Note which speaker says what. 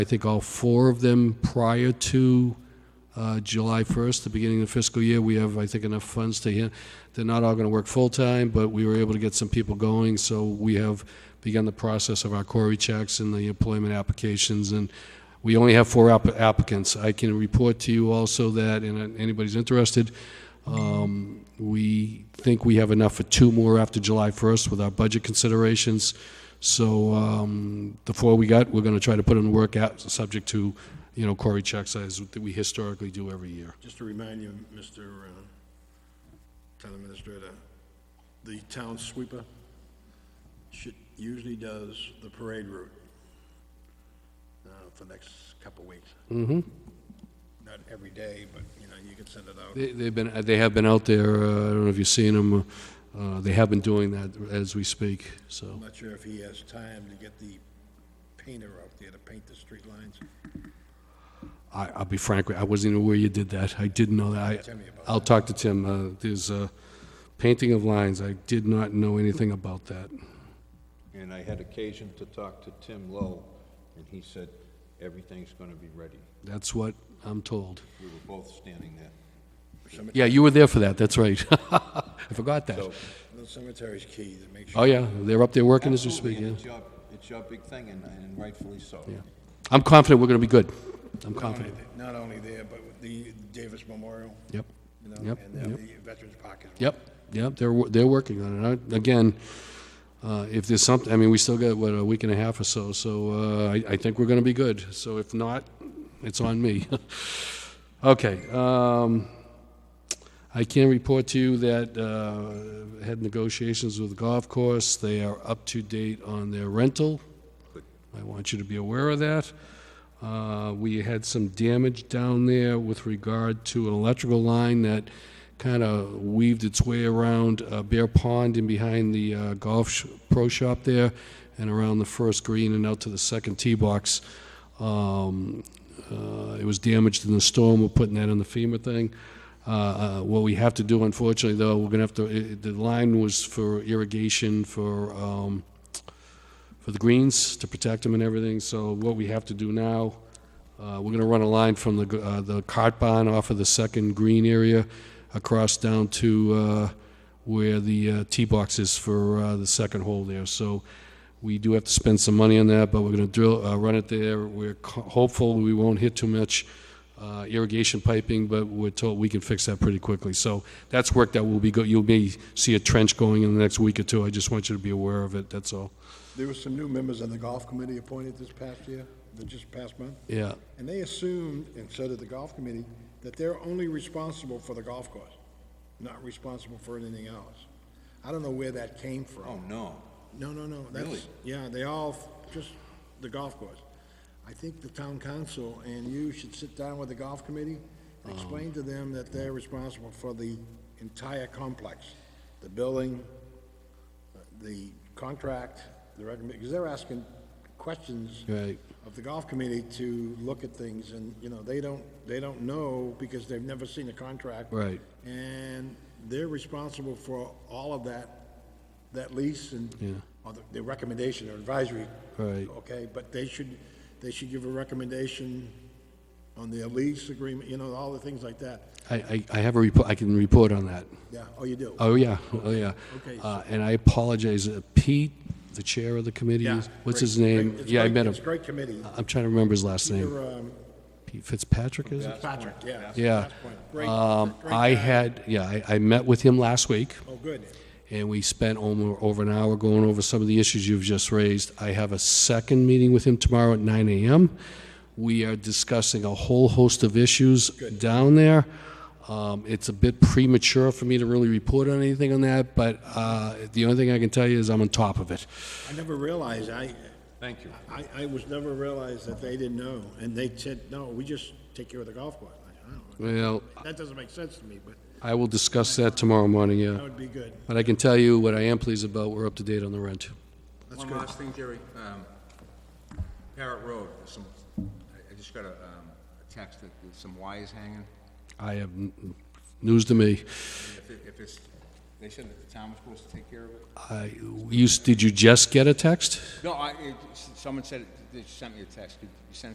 Speaker 1: I think all four of them prior to uh, July 1st, the beginning of the fiscal year. We have, I think, enough funds to, hand- they're not all going to work full-time, but we were able to get some people going, so we have begun the process of our query checks and the employment applications, and we only have four app- applicants. I can report to you also that, and uh, anybody's interested, um, we think we have enough for two more after July 1st with our budget considerations. So um, the four we got, we're going to try to put in the work out, subject to, you know, query checks as that we historically do every year.
Speaker 2: Just to remind you, Mr. uh, Town Administrator, the town sweeper should, usually does the parade route uh, for the next couple weeks. Mm-hmm. Not every day, but, you know, you can send it out.
Speaker 1: They- They've been, uh, they have been out there, uh, I don't know if you've seen them, uh, they have been doing that as we speak, so.
Speaker 2: I'm not sure if he has time to get the painter out there to paint the street lines.
Speaker 1: I, I'll be frank, with you, I wasn't even aware you did that. I didn't know that. I,
Speaker 2: Tell me about
Speaker 1: I'll talk to Tim. Uh, there's a painting of lines. I did not know anything about that.
Speaker 3: And I had occasion to talk to Tim Lowe, and he said, everything's gonna be ready.
Speaker 1: That's what I'm told.
Speaker 3: We were both standing there.
Speaker 1: Yeah, you were there for that. That's right. I forgot that.
Speaker 3: So,
Speaker 2: The cemetery's key to make
Speaker 1: Oh
Speaker 2: sure.
Speaker 1: yeah, they're up there working as we
Speaker 3: absolutely,
Speaker 1: speak.
Speaker 3: and
Speaker 1: Yeah.
Speaker 3: it's your, it's your big thing, and- and rightfully so.
Speaker 1: yeah. I'm confident we're going to be good. I'm confident.
Speaker 2: Not only there, but with the Davis Memorial,
Speaker 1: Yep.
Speaker 2: you know,
Speaker 1: Yep,
Speaker 2: and then
Speaker 1: yep.
Speaker 2: the Veterans Park as well.
Speaker 1: Yep. Yep. They're wo- they're working on it. I, again, uh, if there's something, I mean, we still got what a week and a half or so. So uh, I, I think we're going to be good. So if not, it's on me. okay. Um, I can report to you that uh, had negotiations with the golf course. They are up to date on their rental. I want you to be aware of that. Uh, We had some damage down there with regard to an electrical line that kind of weaved its way around uh, Bear Pond and behind the uh, golf sh- pro shop there, and around the first green and out to the second tee box. Um, uh, It was damaged in the storm, we're putting that in the FEMA thing. Uh, uh, What we have to do unfortunately, though, we're going to have to, i- i- the line was for irrigation for um, for the greens to protect them and everything. So what we have to do now, uh, we're gonna run a line from the, gr- uh, the cart barn off of the second green area across down to, uh, where the, uh, tee box is for, uh, the second hole there. So we do have to spend some money on that, but we're gonna drill, uh, run it there. We're co- hopeful we won't hit too much, uh, irrigation piping, but we're told we can fix that pretty quickly. So that's work that will be go, you'll may see a trench going in the next week or two. I just want you to be aware of it, that's all.
Speaker 2: There were some new members on the golf committee appointed this past year, the- just past month,
Speaker 1: Yeah.
Speaker 2: and they assumed, and so did the golf committee, that they're only responsible for the golf course, not responsible for anything else. I don't know where that came
Speaker 3: Oh,
Speaker 2: from.
Speaker 3: no.
Speaker 2: No, no, no, that's,
Speaker 3: Really?
Speaker 2: yeah, they all, f- just the golf course. I think the town council and you should sit down with the golf committee
Speaker 1: Um.
Speaker 2: and explain to them that they're responsible for the entire complex, the building, the contract, the recommend, because they're asking questions
Speaker 1: Right.
Speaker 2: of the golf committee to look at things, and, you know, they don't, they don't know because they've never seen a contract.
Speaker 1: Right.
Speaker 2: And they're responsible for all of that, that lease and,
Speaker 1: Yeah.
Speaker 2: or the- the recommendation or advisory.
Speaker 1: Right.
Speaker 2: Okay, but they should, they should give a recommendation on their lease agreement, you know, all the things like that.
Speaker 1: I, I, I have a report, I can report on that.
Speaker 2: Yeah, oh, you do?
Speaker 1: Oh, yeah, oh, yeah.
Speaker 2: Okay.
Speaker 1: Uh, and I apologize, uh, Pete, the chair of the committee,
Speaker 2: Yeah,
Speaker 1: what's
Speaker 2: great,
Speaker 1: his name?
Speaker 2: great. It's
Speaker 1: Yeah, I
Speaker 2: great-
Speaker 1: met him. Uh,
Speaker 2: It's a great committee.
Speaker 1: I'm trying to remember his last name.
Speaker 2: You're, um,
Speaker 1: Pete Fitzpatrick, is it?
Speaker 2: Patrick, yeah.
Speaker 1: Yeah.
Speaker 2: Great-
Speaker 1: Um,
Speaker 2: great
Speaker 1: I
Speaker 2: guy.
Speaker 1: had, yeah, I, I met with him last week.
Speaker 2: Oh, good.
Speaker 1: and we spent over, over an hour going over some of the issues you've just raised. I have a second meeting with him tomorrow at 9 a.m. We are discussing a whole host of issues down there. Um, it's a bit premature for me to really report on anything on that, but uh, the only thing I can tell you is I'm on top of it.
Speaker 2: I never realized, I,
Speaker 3: Thank you.
Speaker 2: I, I was never realized that they didn't know, and they said, no, we just take care of the golf course. I said, "Oh,
Speaker 1: Well,
Speaker 2: That doesn't make sense to me, but
Speaker 1: I will discuss that tomorrow morning,
Speaker 2: that
Speaker 1: yeah.
Speaker 2: would be good.
Speaker 1: But I can tell you what I am pleased about, we're up to date on the rent.
Speaker 2: That's
Speaker 4: One
Speaker 2: good.
Speaker 4: last thing, Jerry. Um, Parrot Road, there's some, I I just got a um, a text that there's some wires hanging.
Speaker 1: I have, n- news to me.
Speaker 4: If it- if it's, they said that the town was supposed to take care of it.
Speaker 1: I, you, did you just get a text?
Speaker 4: No, I, it- someone said, it- they sent me a text. Could you send